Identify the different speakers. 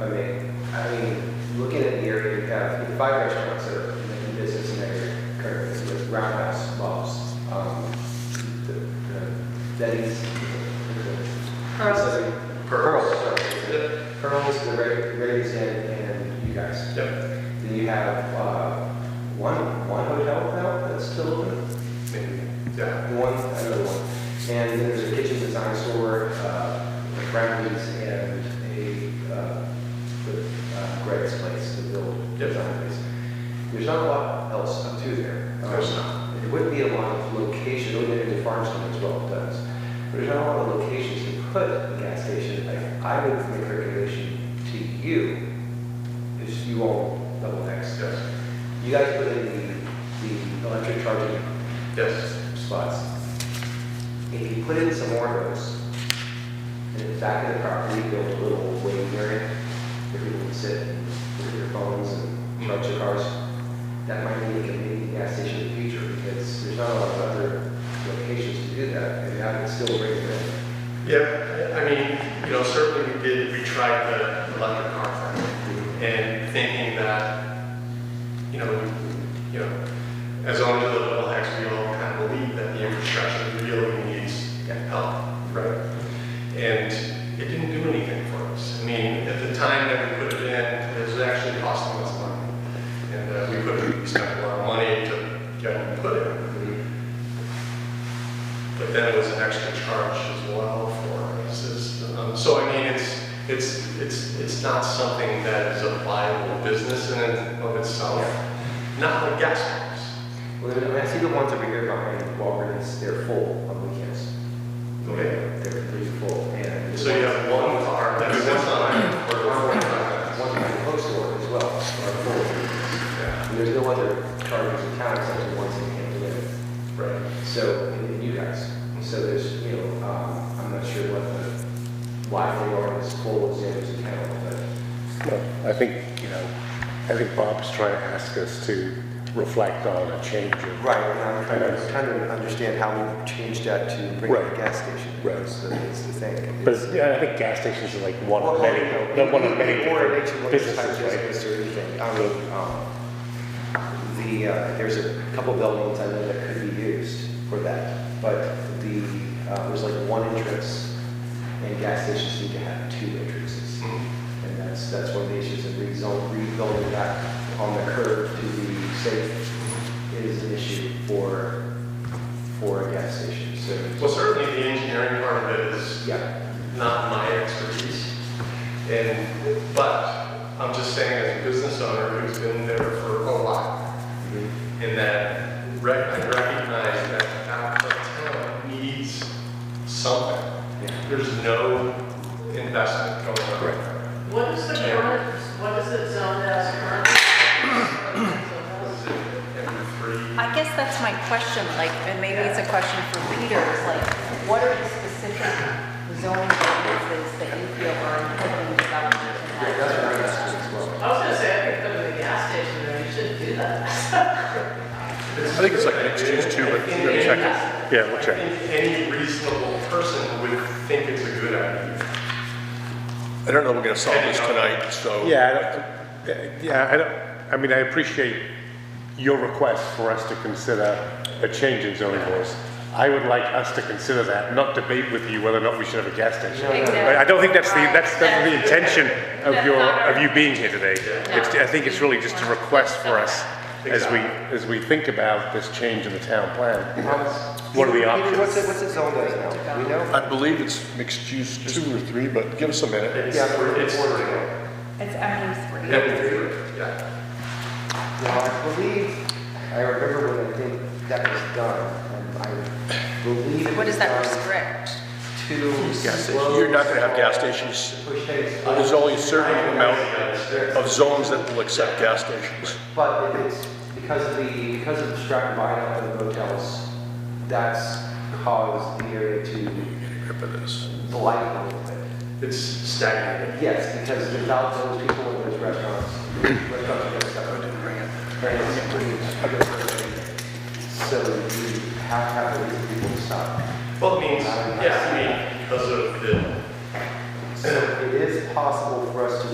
Speaker 1: I mean, I mean, looking at the area, you have, you have five restaurants that are in the business in there currently, so it's Roundhouse, Bob's, um, the, the, Denny's. Pearls. Pearls, sorry. Pearls, the Ra- Raised Inn, and you guys.
Speaker 2: Yep.
Speaker 1: Then you have, uh, one, one hotel now that's still open.
Speaker 2: Maybe, yeah.
Speaker 1: One, another one. And then there's a kitchen design store, uh, Brownies and a, uh, the, uh, Greg's Place, the build
Speaker 2: Yep.
Speaker 1: design place. There's not a lot else up to there. Um,
Speaker 2: There's not.
Speaker 1: It would be a lot of location, looking at the farm stand as well, it does. But There's not a lot of locations to put a gas station. Like, I would make a recommendation to you, is you all double X.
Speaker 2: Yes,
Speaker 1: You guys put in the, the electric charging
Speaker 2: yes,
Speaker 1: spots. If you put in some more of those, in the back of the property, build a little waiting area where people can sit and look at their phones and charge their cars. That might be a convenient gas station in the future because there's not a lot of other locations to do that and that would still bring it in.
Speaker 2: yeah, I I mean, you know, certainly we did, we tried the electric car thing, and thinking that, you know, you know, as owners of the Little Hacks, we all kind of believe that the infrastructure really needs
Speaker 1: Yeah.
Speaker 2: help, right? And it didn't do anything for us. I mean, at the time that we put it in, it was actually costing us money. And uh, we put, we spent a lot of money to get it put in. But then it was an extra charge as well for us. It's, um, So I mean, it's, it's, it's, it's not something that is a viable business in and of itself. Not the gas pumps.
Speaker 1: Well, I mean, I see the ones over here behind Walgreens, they're full on weekends.
Speaker 2: Okay.
Speaker 1: They're completely full and.
Speaker 2: So you have one car that's that's on for
Speaker 1: One
Speaker 2: forty-five minutes.
Speaker 1: by the clothes store as well, are full on weekends.
Speaker 2: Yeah,
Speaker 1: And there's no other chargers in town except for ones in Hampton Inn.
Speaker 2: right.
Speaker 1: So, and and you guys. So there's, you know, um, I'm not sure what the, why they are as full as others in town, but.
Speaker 3: Well, I think, you know, I think Bob's trying to ask us to reflect on a change of.
Speaker 1: Right, and I'm
Speaker 3: trying to-
Speaker 1: trying to understand how we change that to
Speaker 3: bring in the Right.
Speaker 1: gas station.
Speaker 3: Right. That's
Speaker 1: It's the thing.
Speaker 3: But it's- yeah, I think gas stations are like one of many, they're one of many different businesses, right?
Speaker 1: Or anything, I mean, um, the, uh, there's a couple buildings I know that could be used for that, but the, uh, there's like one entrance, and gas stations need to have two entrances.
Speaker 2: Mm-hmm.
Speaker 1: And that's, that's one of the issues of rezone, rebuilding that on the curve to be safe is an issue for, for a gas station, so,
Speaker 2: Well, certainly the engineering part of it is
Speaker 1: yeah.
Speaker 2: not my expertise. And, but I'm just saying as a business owner who's been there for a while, in that rec- I recognize that our town needs something.
Speaker 1: Yeah.
Speaker 2: There's no investment going on. Right.
Speaker 4: What is the current, what is it zoned as currently?
Speaker 2: Every three,
Speaker 5: I guess that's my question, like, and maybe it's a question for Peter, is like, what are the specific zoning ordinances that you feel are improving development in that?
Speaker 1: That's what I'm asking as well.
Speaker 4: I was gonna say, I could come to the gas station, there. you shouldn't do that.
Speaker 3: I think it's like mixed use too, but we're gonna check it. Yeah, we'll
Speaker 2: I
Speaker 3: check.
Speaker 2: think any reasonable person would think it's a good idea.
Speaker 6: I don't know we're gonna solve this tonight, so.
Speaker 3: Yeah, I don't, yeah, I don't, I mean, I appreciate your request for us to consider a change in zoning laws. I would like us to consider that, not debate with you whether or not we should have a gas station. But I don't think that's the, that's, that's the intention of your, of you being here today. It's, I think it's really just a request for us as we, as we think about this change in the town plan. What are the options?
Speaker 1: What's it, what's it zoned as now? We know?
Speaker 6: I believe it's mixed use two or three, but give us a minute.
Speaker 2: It's,
Speaker 1: Yeah, we're-
Speaker 2: it's
Speaker 1: we're-
Speaker 5: It's MU three.
Speaker 2: every three, yeah.
Speaker 1: Now, I believe, I remember when I think that was done, and I believe. it
Speaker 5: What does that
Speaker 1: was done
Speaker 5: restrict?
Speaker 1: To.
Speaker 6: Gas station. You're not gonna have gas stations.
Speaker 1: Push things.
Speaker 6: There's only a certain amount of zones that will accept gas stations.
Speaker 1: But if it's because of the, because of the strap line up of the motels, that's caused the area to
Speaker 6: Remember this.
Speaker 1: blight a little bit.
Speaker 2: It's stagnated.
Speaker 1: Yes, because without those people in those restaurants, restaurants are gonna suffer. Right, it's pretty- So you have to have a reason for people to stop.
Speaker 2: Well, it means, yeah, I mean, because of the,
Speaker 1: So it is possible